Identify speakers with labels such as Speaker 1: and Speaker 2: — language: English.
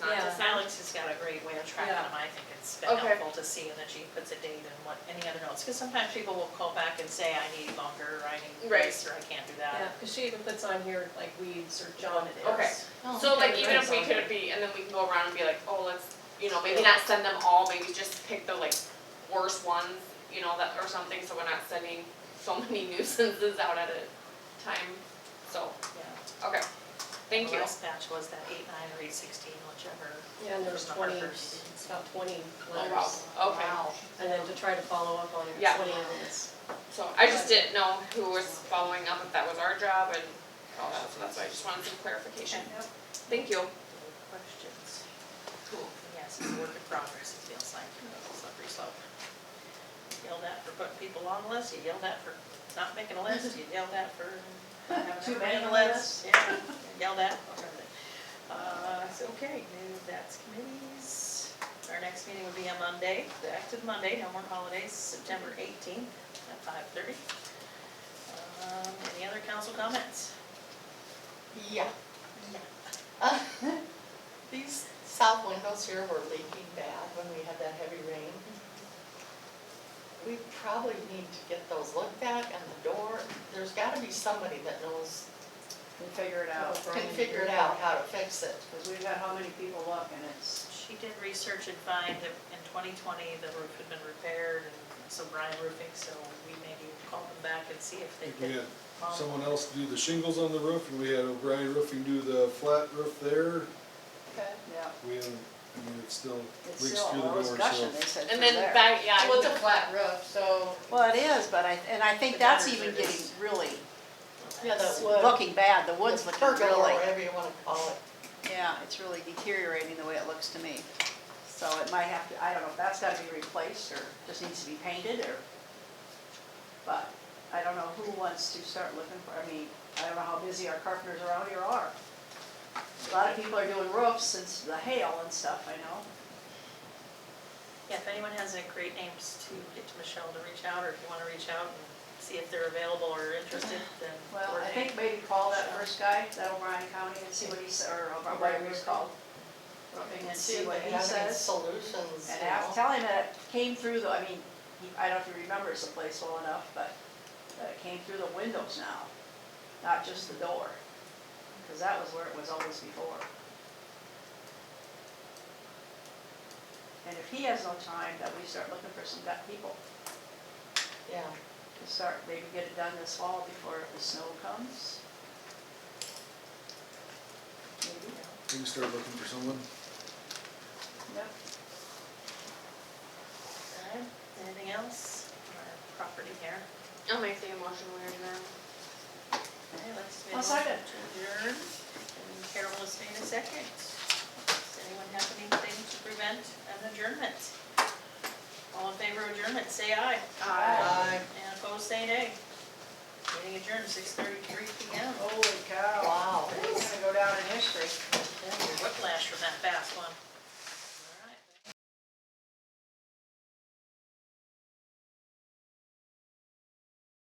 Speaker 1: Uh, great way of tracking
Speaker 2: Yeah.
Speaker 1: them, I think it's been
Speaker 2: Okay.
Speaker 1: helpful to see, and the chief puts a date and what, any other notes, because sometimes people will call back and say, I need longer, or I need
Speaker 2: Right.
Speaker 1: this, or I can't do
Speaker 3: Yeah,
Speaker 1: that.
Speaker 3: because she even puts on here like weeds or
Speaker 1: John
Speaker 3: junk.
Speaker 1: it is.
Speaker 2: Okay.
Speaker 1: Oh,
Speaker 2: So like
Speaker 1: okay,
Speaker 2: even if
Speaker 1: right.
Speaker 2: we could be, and then we can go around and be like, oh, let's, you know, maybe not send them all, maybe just pick the like worst ones, you know, that, or something, so we're not sending so many nuisances out at a time, so,
Speaker 1: Yeah.
Speaker 2: okay, thank
Speaker 1: The
Speaker 2: you.
Speaker 1: Last batch was that eight, nine, or eight, sixteen, whichever.
Speaker 3: Yeah, and there's
Speaker 1: was the
Speaker 3: twenty,
Speaker 1: Harper's.
Speaker 3: it's about twenty
Speaker 2: Oh, wow,
Speaker 3: letters.
Speaker 2: okay,
Speaker 1: Wow.
Speaker 3: And then to try to follow up on
Speaker 2: Yeah.
Speaker 3: twenty of this.
Speaker 2: so I just didn't know who was following up, if that was our job and all that, so that's why I just wanted some clarification, thank you.
Speaker 1: Questions?
Speaker 2: Cool.
Speaker 1: Yes, it's a work in progress, it feels like, you know, it's a slippery slope. You Yelled at for putting people on the list, you yelled at for not making a list, you yelled at for having
Speaker 4: Too
Speaker 1: too
Speaker 4: many
Speaker 1: many
Speaker 4: on the
Speaker 1: lists. Yeah, you yelled at. for everything. Uh, so, okay, new, that's committees. Our next meeting will be on Monday, the active Monday, no more holidays, September eighteenth at five thirty. Um, any other council comments?
Speaker 4: Yeah. Uh, These south windows here were leaking bad when we had that heavy rain. We probably need to get those looked at and the door, there's gotta be somebody that knows,
Speaker 5: and figure it out.
Speaker 4: can figure it out how to fix it.
Speaker 5: Because we've had how many people look and it's,
Speaker 1: She did research and find that in 2020, the roof had been repaired, and so Brian Roofing, so we maybe call them back and see if they
Speaker 6: If we
Speaker 1: could.
Speaker 6: had someone else do the shingles on the roof, and we had O'Brien Roofing do the flat roof there,
Speaker 4: Okay.
Speaker 5: yeah.
Speaker 6: we, had- I mean, it still
Speaker 5: It's
Speaker 6: leaks
Speaker 5: still
Speaker 6: through the
Speaker 5: all
Speaker 6: door, so.
Speaker 5: discussion, they said
Speaker 2: And
Speaker 5: through
Speaker 2: then
Speaker 5: there.
Speaker 2: that, yeah.
Speaker 4: Well, it's a flat roof, so.
Speaker 7: Well, it is, but I, and I think
Speaker 1: The
Speaker 7: that's
Speaker 1: gutters
Speaker 7: even
Speaker 1: are
Speaker 7: getting
Speaker 1: just-
Speaker 7: really,
Speaker 4: Yeah, the wood.
Speaker 7: looking bad, the wood's
Speaker 4: the
Speaker 7: looking
Speaker 4: pergola, or
Speaker 7: really,
Speaker 4: Whatever you wanna call it.
Speaker 7: yeah, it's really deteriorating the way it looks to me. So it might have to, I don't know, if that's gotta be replaced, or just needs to be painted, or,
Speaker 5: But I don't know who wants to start looking for, I mean, I don't know how busy our carpenters around here are. A lot of people are doing roofs since the hail and stuff, I know.
Speaker 1: Yeah, if anyone has any great names to get to Michelle to reach out, or if you want to reach out and see if they're available or interested, then
Speaker 5: Well, I
Speaker 1: coordinate.
Speaker 5: think maybe call that first guy, that O'Brien County, and see what he says, or whatever he's called. Roofing and see what
Speaker 4: if they
Speaker 5: he
Speaker 4: have any
Speaker 5: says.
Speaker 4: Solutions,
Speaker 5: And
Speaker 4: you
Speaker 5: af-
Speaker 4: know.
Speaker 5: tell him that it came through the, I mean, he- I don't know if he remembers the place well enough, but that it came through the windows now, not just the door. Because that was where it was always before. And if he has no time, then we start looking for some gut people
Speaker 4: Yeah.
Speaker 5: to start, maybe get it done this fall before the snow comes. Maybe,
Speaker 6: We can start looking for someone.
Speaker 5: yep.
Speaker 1: Okay, uh, Anything else on our property here?
Speaker 2: I'll make the emotion weird now.
Speaker 1: Okay, let's
Speaker 5: I'll
Speaker 1: finish
Speaker 5: second.
Speaker 1: to adjourn, and Carol has made a second. Does anyone have anything to prevent an adjournment? All in favor of adjournment, say aye.
Speaker 4: Aye.
Speaker 1: And opposed, say nay. Meeting adjourned, six thirty-three P M. Oh,
Speaker 5: Holy cow.
Speaker 4: Wow.
Speaker 5: It's gonna go down in history.
Speaker 1: Whiplash from that fast one.